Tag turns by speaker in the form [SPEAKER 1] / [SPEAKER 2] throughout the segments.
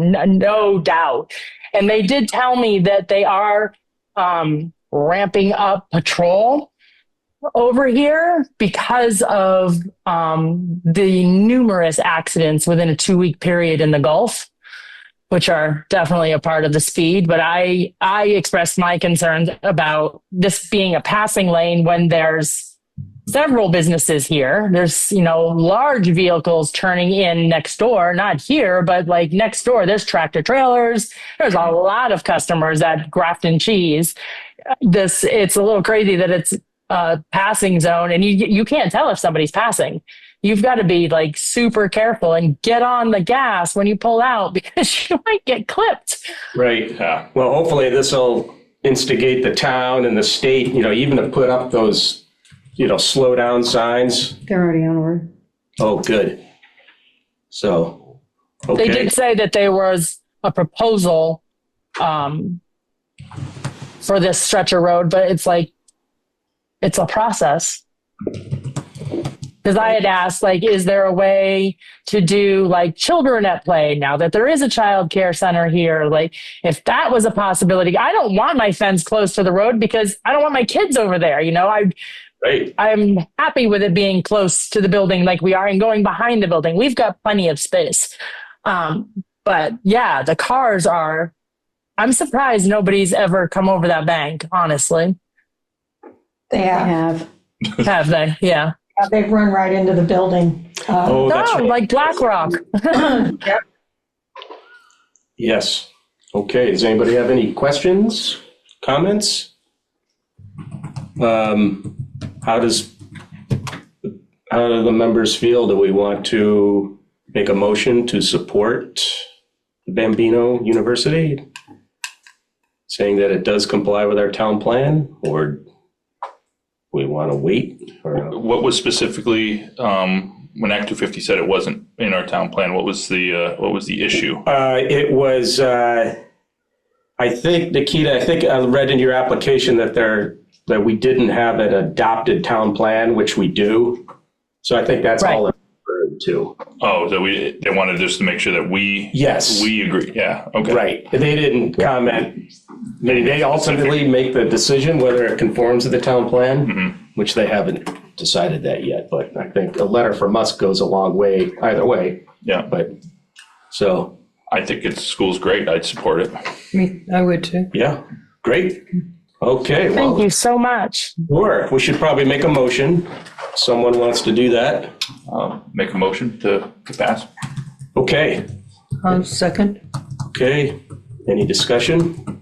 [SPEAKER 1] n- no doubt. And they did tell me that they are um, ramping up patrol over here because of um, the numerous accidents within a two week period in the Gulf. Which are definitely a part of the speed, but I I expressed my concerns about this being a passing lane when there's several businesses here. There's, you know, large vehicles turning in next door, not here, but like next door, there's tractor trailers. There's a lot of customers at Grafton Cheese. This, it's a little crazy that it's a passing zone and you, you can't tell if somebody's passing. You've got to be like super careful and get on the gas when you pull out because you might get clipped.
[SPEAKER 2] Right. Uh, Well, hopefully this will instigate the town and the state, you know, even to put up those, you know, slow down signs.
[SPEAKER 3] They're already on board.
[SPEAKER 2] Oh, good. So,
[SPEAKER 1] They
[SPEAKER 2] okay.
[SPEAKER 1] did say that there was a proposal um, for this stretch of road, but it's like, it's a process. Because I had asked, like, is there a way to do like children at play now that there is a child care center here? Like, if that was a possibility, I don't want my fence close to the road because I don't want my kids over there. You know, I
[SPEAKER 2] Right.
[SPEAKER 1] I'm happy with it being close to the building like we are and going behind the building. We've got plenty of space. Um, but yeah, the cars are. I'm surprised nobody's ever come over that bank, honestly.
[SPEAKER 4] They
[SPEAKER 3] They
[SPEAKER 4] have.
[SPEAKER 3] have.
[SPEAKER 1] Have they? Yeah.
[SPEAKER 4] They've run right into the building. Uh,
[SPEAKER 2] Oh, that's
[SPEAKER 1] No,
[SPEAKER 2] right.
[SPEAKER 1] like BlackRock.
[SPEAKER 2] Yes. Okay. Does anybody have any questions, comments? Um, how does, how do the members feel? Do we want to make a motion to support Bambino University? Saying that it does comply with our town plan or we want to wait or,
[SPEAKER 5] What was specifically, um, when Act two fifty said it wasn't in our town plan, what was the, uh, what was the issue?
[SPEAKER 2] uh, it was, uh, I think, Nikita, I think I read in your application that there, that we didn't have an adopted town plan, which we do. So I think that's all it referred to.
[SPEAKER 5] Oh, that we, they wanted just to make sure that we.
[SPEAKER 2] Yes.
[SPEAKER 5] We agree, yeah, okay.
[SPEAKER 2] Right. They didn't comment. They, they ultimately make the decision whether it conforms to the town plan, which they haven't decided that yet. But I think a letter from us goes a long way either way,
[SPEAKER 5] Yeah,
[SPEAKER 2] but, so,
[SPEAKER 5] I think it's, school's great, I'd support it.
[SPEAKER 6] Me, I would too.
[SPEAKER 2] yeah, great. Okay,
[SPEAKER 1] Thank
[SPEAKER 2] well,
[SPEAKER 1] you so much.
[SPEAKER 2] sure. We should probably make a motion. Someone wants to do that?
[SPEAKER 5] Um, make a motion to, to pass.
[SPEAKER 2] Okay,
[SPEAKER 6] I'll second.
[SPEAKER 2] okay. Any discussion?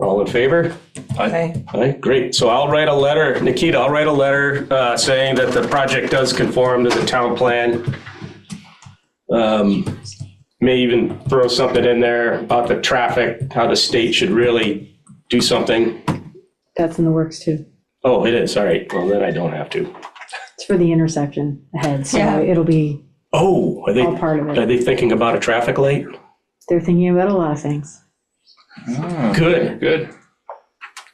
[SPEAKER 2] All in favor?
[SPEAKER 5] I,
[SPEAKER 6] Okay.
[SPEAKER 2] All right, great. So I'll write a letter, Nikita, I'll write a letter uh, saying that the project does conform to the town plan. Um, May even throw something in there about the traffic, how the state should really do something.
[SPEAKER 3] That's in the works too.
[SPEAKER 2] Oh, it is, all right. Well, then I don't have to.
[SPEAKER 3] It's for the intersection ahead,
[SPEAKER 4] Yeah.
[SPEAKER 3] so it'll be,
[SPEAKER 2] Oh, are they,
[SPEAKER 3] All part of it.
[SPEAKER 2] are they thinking about a traffic light?
[SPEAKER 3] they're thinking about a lot of things.
[SPEAKER 2] Good,
[SPEAKER 5] good.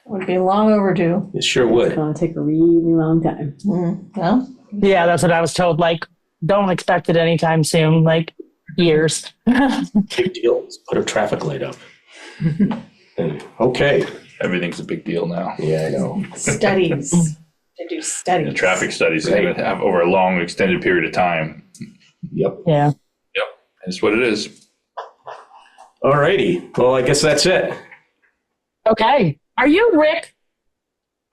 [SPEAKER 4] would be long overdue.
[SPEAKER 2] it sure
[SPEAKER 3] It's
[SPEAKER 2] would.
[SPEAKER 3] gonna take a really long time.
[SPEAKER 4] No?
[SPEAKER 1] Yeah, that's what I was told. Like, don't expect it anytime soon, like years.
[SPEAKER 2] Big deal. Let's Put a traffic light up. And- Okay,
[SPEAKER 5] Everything's a big deal now.
[SPEAKER 2] yeah, I know.
[SPEAKER 4] Studies. They do studies.
[SPEAKER 5] The traffic studies is gonna have over a long extended period of time.
[SPEAKER 2] Yep.
[SPEAKER 1] yeah.
[SPEAKER 5] Yep. That's what it is.
[SPEAKER 2] All righty. Well, I guess that's it.
[SPEAKER 1] Okay. Are you Rick?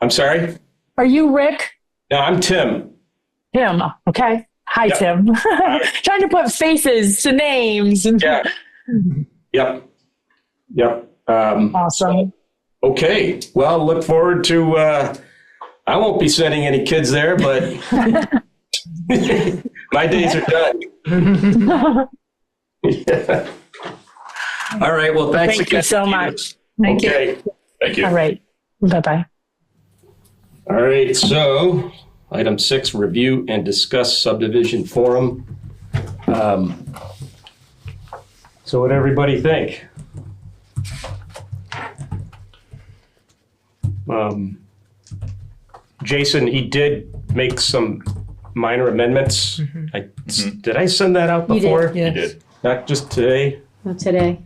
[SPEAKER 2] I'm sorry?
[SPEAKER 1] Are you Rick?
[SPEAKER 2] No, I'm Tim.
[SPEAKER 1] Tim. Okay. Hi,
[SPEAKER 2] Yeah.
[SPEAKER 1] Tim. Trying to put faces to names. And-
[SPEAKER 2] Yeah. Yep. Yep. Um,
[SPEAKER 1] Awesome.
[SPEAKER 2] okay. Well, look forward to. Uh, I won't be sending any kids there, but my days are done. All right. Well, thanks
[SPEAKER 1] Thank
[SPEAKER 2] again.
[SPEAKER 1] you so much.
[SPEAKER 6] Thank you.
[SPEAKER 2] Okay.
[SPEAKER 5] Thank you.
[SPEAKER 1] All right. Bye bye.
[SPEAKER 2] All right. So, item six: review and discuss subdivision forum. Um, so, what everybody think? Um, Jason, he did make some minor amendments. I, Did I send that out
[SPEAKER 3] Mm-hmm. You did,
[SPEAKER 2] before?
[SPEAKER 5] You
[SPEAKER 6] Yes.
[SPEAKER 5] did.
[SPEAKER 2] Not just today?
[SPEAKER 3] Not today.